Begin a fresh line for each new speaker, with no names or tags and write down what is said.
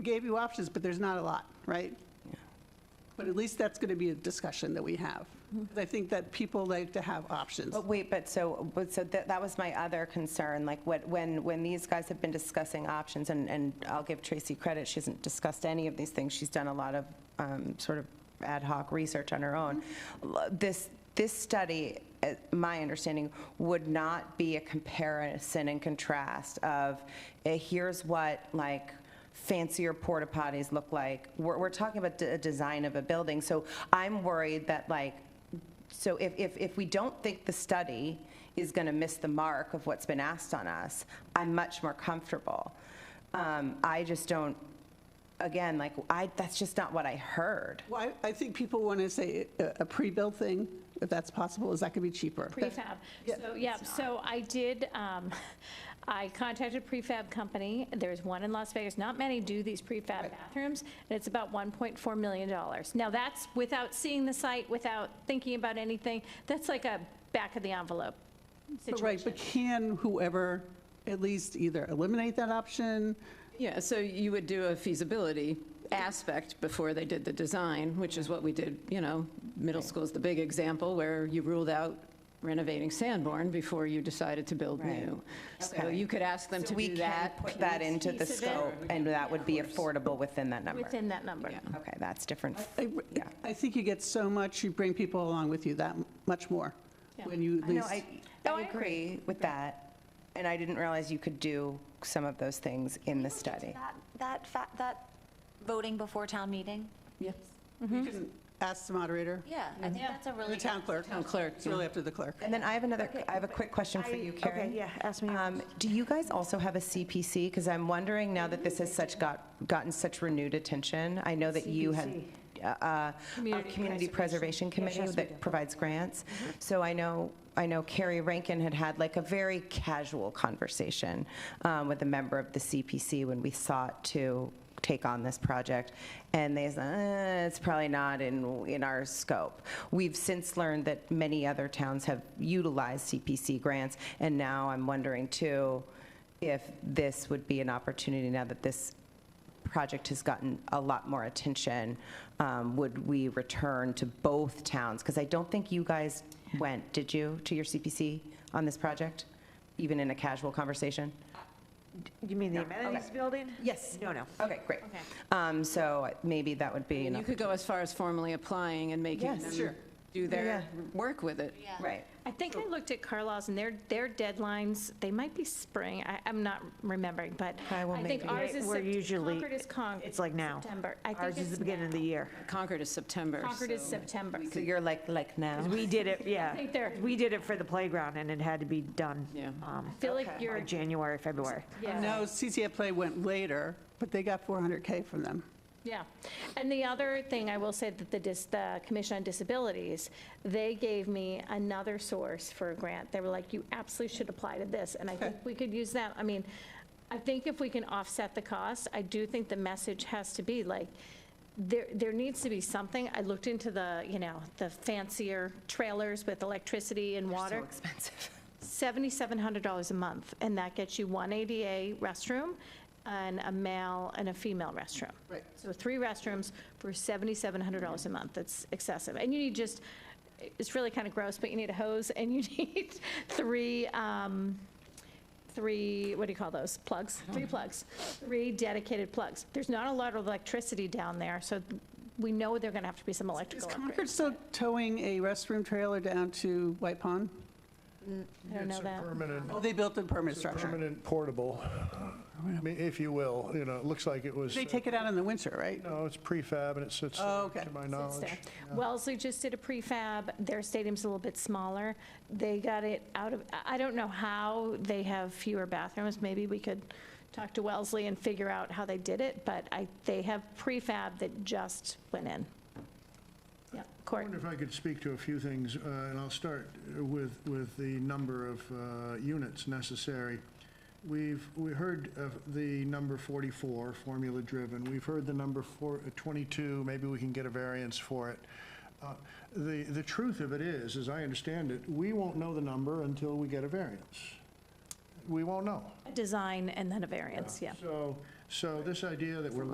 gave you options, but there's not a lot, right? But at least that's going to be a discussion that we have. 'Cause I think that people like to have options.
But wait, but so, but so that, that was my other concern, like what, when, when these guys have been discussing options, and, and I'll give Tracy credit, she hasn't discussed any of these things, she's done a lot of, um, sort of ad hoc research on her own. L- This, this study, uh, my understanding, would not be a comparison and contrast of, eh, here's what, like, fancier porta potties look like. We're, we're talking about the design of a building, so I'm worried that like, so if, if, if we don't think the study is going to miss the mark of what's been asked on us, I'm much more comfortable. Um, I just don't, again, like, I, that's just not what I heard.
Well, I- I think people want to say a a pre-built thing, if that's possible, is that could be cheaper.
Prefab. So, yeah, so I did, um, I contacted a prefab company. There's one in Las Vegas. Not many do these prefab bathrooms, and it's about $1.4 million. Now, that's without seeing the site, without thinking about anything. That's like a back of the envelope
But Right,
situation.
but can whoever at least either eliminate that option?
Yeah, so you would do a feasibility aspect before they did the design, which is what we did, you know, middle school is the big example where you ruled out renovating Sanborn before you decided to build
Right.
new. So
Okay.
you could ask them to
We
do
can
that.
put that into the
piece of it.
scope, and that would be affordable within that number.
Within that number.
Okay, that's different.
I-
Yeah.
I think you get so much, you bring people along with you that much more
Yeah.
when you at
No,
least.
I,
No,
I
I agree.
agree with that, and I didn't realize you could do some of those things in the study.
That, that, fa- that voting before town meeting?
Yeah.
You can ask the moderator,
Yeah, I think that's a really.
the town clerk.
Town clerk,
It's really up to the clerk.
And then I have another, I have a quick question for you, Karen.
Okay, yeah, ask me.
Um, Do you guys also have a CPC? Because I'm wondering now that this has such got, gotten such renewed attention, I know that you had uh, uh, a Community Preservation Committee that provides grants.
Mm-hmm.
So I know, I know Carrie Rankin had had like a very casual conversation um, with a member of the CPC when we sought to take on this project, and they said, "Eh, it's probably not in, in our scope. We've since learned that many other towns have utilized CPC grants, and now I'm wondering too, if this would be an opportunity, now that this project has gotten a lot more attention, um, would we return to both towns? Because I don't think you guys went, did you, to your CPC on this project, even in a casual conversation?
You mean the amenities building?
Yes.
No, no.
Okay, great. Um, So maybe that would be
And you
enough.
could go as far as formally applying and making
Yes.
them do their work with it.
Yeah.
Right.
I think I looked at Carlisle's and their, their deadlines, they might be spring, I, I'm not remembering, but
Okay, well,
I think
maybe.
ours is,
We're
Sept-
usually-
Concord is Con-
It's like now.
September. I think
Ours is
it's
the beginning of the
now.
year.
Concord is September.
Concord is
so-
September.
So you're like, like now?
We did it, yeah.
think they're-
We did it for the playground, and it had to be done.
Yeah.
um,
I feel like
by
you're,
January, February.
yeah.
No, CCF Play went later, but they got 400K from them.
Yeah. And the other thing I will say that the dis, the Commission on Disabilities, they gave me another source for a grant. They were like, you absolutely should apply to this. And I think we could use that. I mean, I think if we can offset the cost, I do think the message has to be like, there, there needs to be something. I looked into the, you know, the fancier trailers with electricity and water.
So expensive.
$7,700 a month, and that gets you one ADA restroom and a male and a female restroom.
Right.
So three restrooms for $7,700 a month. That's excessive. And you need just, it's really kind of gross, but you need a hose and you need three, um, three, what do you call those? Plugs?
Uh-huh.
Three plugs. Three dedicated plugs. There's not a lot of electricity down there, so we know they're going to have to be some
Is
electrical
Concord
upgrades.
still towing a restroom trailer down to White Pond?
I don't know that.
It's a permanent,
Oh, they built a permanent structure.
permanent portable, I mean, if you will, you know, it looks like it was,
They take it out in the winter, right?
no, it's prefab and it sits,
Oh,
there,
okay.
to my
It's
knowledge.
there. Wellesley just did a prefab, their stadium's a little bit smaller. They got it out of, I- I don't know how they have fewer bathrooms, maybe we could talk to Wellesley and figure out how they did it, but I, they have prefab that just went in. Yeah,
I
Court,
wonder if I could speak to a few things, uh, and I'll start with, with the number of uh, units necessary. We've, we heard of the number 44, formula-driven. We've heard the number four- uh, 22, maybe we can get a variance for it. Uh, The, the truth of it is, as I understand it, we won't know the number until we get a variance. We won't know.
a design and then a variance, yeah.
So, so this idea that we're